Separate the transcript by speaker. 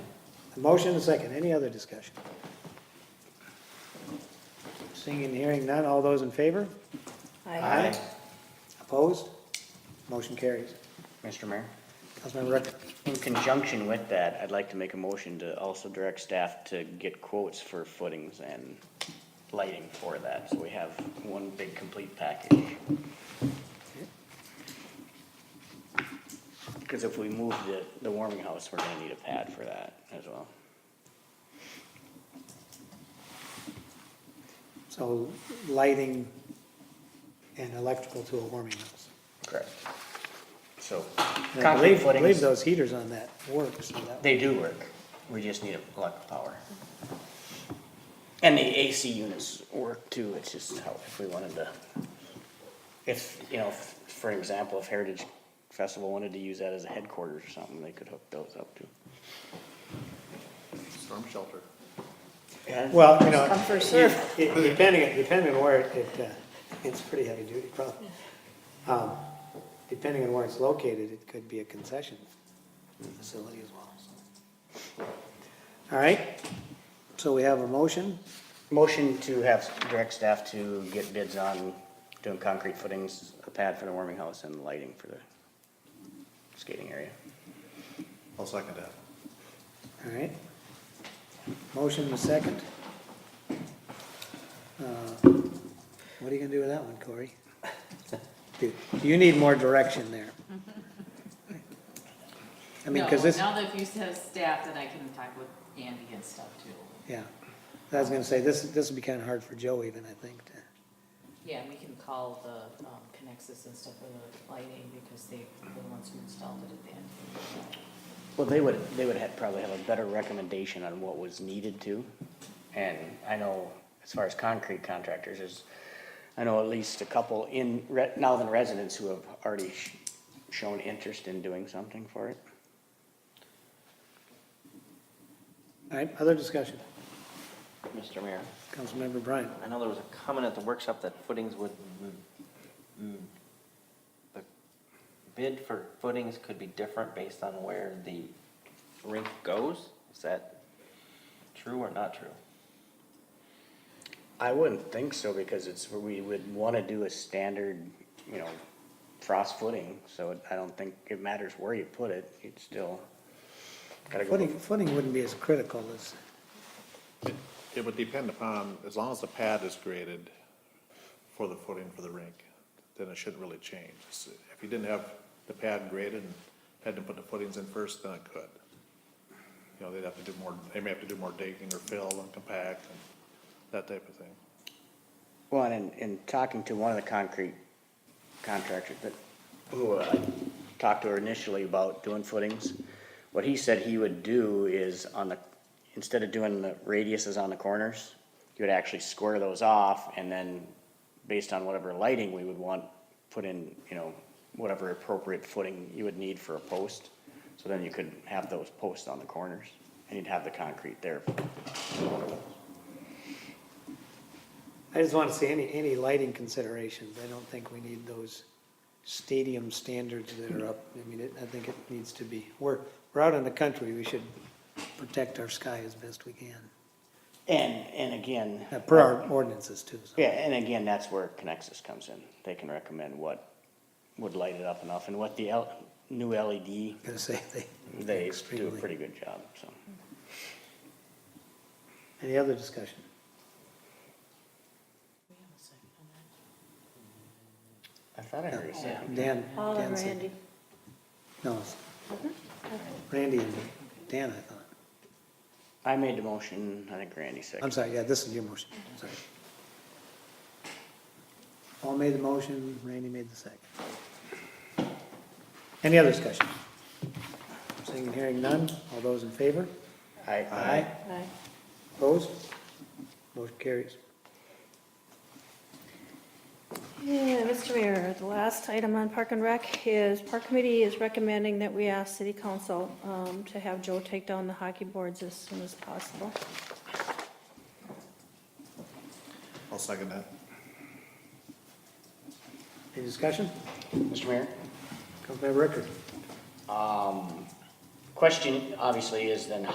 Speaker 1: A motion and a second, any other discussion? Seeing and hearing none, all those in favor?
Speaker 2: Aye.
Speaker 1: Opposed? Motion carries.
Speaker 3: Mr. Mayor,
Speaker 1: Councilmember Ricker.
Speaker 3: in conjunction with that, I'd like to make a motion to also direct staff to get quotes for footings and lighting for that, so we have one big complete package. Because if we move the, the warming house, we're gonna need a pad for that as well.
Speaker 1: So lighting and electrical to a warming house.
Speaker 3: Correct. So,
Speaker 1: And I
Speaker 3: concrete
Speaker 1: believe, I believe
Speaker 3: footings,
Speaker 1: those heaters on that work, so that,
Speaker 3: they do work, we just need electric power. And the AC units work too, it's just how, if we wanted to, if, you know, if- for example, if Heritage Festival wanted to use that as a headquarters or something, they could hook those up too.
Speaker 4: Storm shelter.
Speaker 3: Yeah,
Speaker 1: well, you know,
Speaker 2: Come first
Speaker 1: it-
Speaker 2: serve.
Speaker 1: it- depending, depending on where it- it, uh, it's pretty heavy duty probably. Um, Depending on where it's located, it could be a concession facility as well, so. All right, so we have a motion,
Speaker 3: motion to have direct staff to get bids on doing concrete footings, a pad for the warming house and lighting for the skating area.
Speaker 4: I'll second that.
Speaker 1: all right? Motion and a second. Uh, What are you gonna do with that one, Corey? Do You need more direction there. I mean, cause
Speaker 5: No,
Speaker 1: this.
Speaker 5: Now that you have staff, then I can talk with Andy and stuff too.
Speaker 1: Yeah, I was gonna say, this, this would be kinda hard for Joe even, I think, to,
Speaker 5: Yeah, we can call the um, Connexus and stuff for the lighting because they, the ones who installed it at the end.
Speaker 3: Well, they would, they would have, probably have a better recommendation on what was needed to. And I know, as far as concrete contractors, is, I know at least a couple in, re- now than residents who have already sh- shown interest in doing something for it.
Speaker 1: all right, other discussion,
Speaker 6: Mr. Mayor,
Speaker 1: Councilmember Bryan.
Speaker 6: I know there was a comment at the workshop that footings would, mm, mm, the bid for footings could be different based on where the rink goes? Is that true or not true?
Speaker 3: I wouldn't think so, because it's, we would wanna do a standard, you know, frost footing, so I don't think it matters where you put it, you'd still gotta go.
Speaker 1: Footing, footing wouldn't be as critical as,
Speaker 4: It- It would depend upon, as long as the pad is created for the footing for the rink, then it shouldn't really change. It's- If you didn't have the pad graded and had to put the footings in first, then it could. You know, they'd have to do more, they may have to do more digging or fill and compact and that type of thing.
Speaker 3: Well, and in, in talking to one of the concrete contractors that, who I talked to her initially about doing footings, what he said he would do is on the, instead of doing the radiuses on the corners, he would actually square those off and then, based on whatever lighting we would want, put in, you know, whatever appropriate footing you would need for a post. So then you could have those posts on the corners and you'd have the concrete there.
Speaker 1: I just wanna see any, any lighting considerations, I don't think we need those stadium standards that are up, I mean, it, I think it needs to be, we're, we're out in the country, we should protect our sky as best we can,
Speaker 3: And, and again.
Speaker 1: uh, per our ordinances too, so.
Speaker 3: Yeah, and again, that's where Connexus comes in. They can recommend what would light it up enough and what the L, new LED,
Speaker 1: Gonna say they.
Speaker 3: they do a
Speaker 1: extremely-
Speaker 3: pretty good job, so.
Speaker 1: Any other discussion?
Speaker 5: We have a second on
Speaker 3: I
Speaker 5: that.
Speaker 3: thought I heard you say.
Speaker 1: Dan.
Speaker 2: Paul and
Speaker 1: Dan said-
Speaker 2: Randy.
Speaker 1: No, it's- Randy and Dan, I thought.
Speaker 3: I made the motion, I think Randy seconded.
Speaker 1: I'm sorry, yeah, this is your motion, I'm sorry. Paul made the motion, Randy made the second. Any other discussion? Seeing and hearing none, all those in favor?
Speaker 3: I,
Speaker 1: Aye.
Speaker 2: Aye.
Speaker 1: Opposed? Motion carries.
Speaker 2: Yeah, Mr. Mayor, the last item on Park and Rec is, Park Committee is recommending that we ask City Council um, to have Joe take down the hockey boards as soon as possible.
Speaker 4: I'll second that.
Speaker 1: Any discussion?
Speaker 3: Mr. Mayor? um,
Speaker 1: Councilmember Rickard?
Speaker 3: Question obviously is then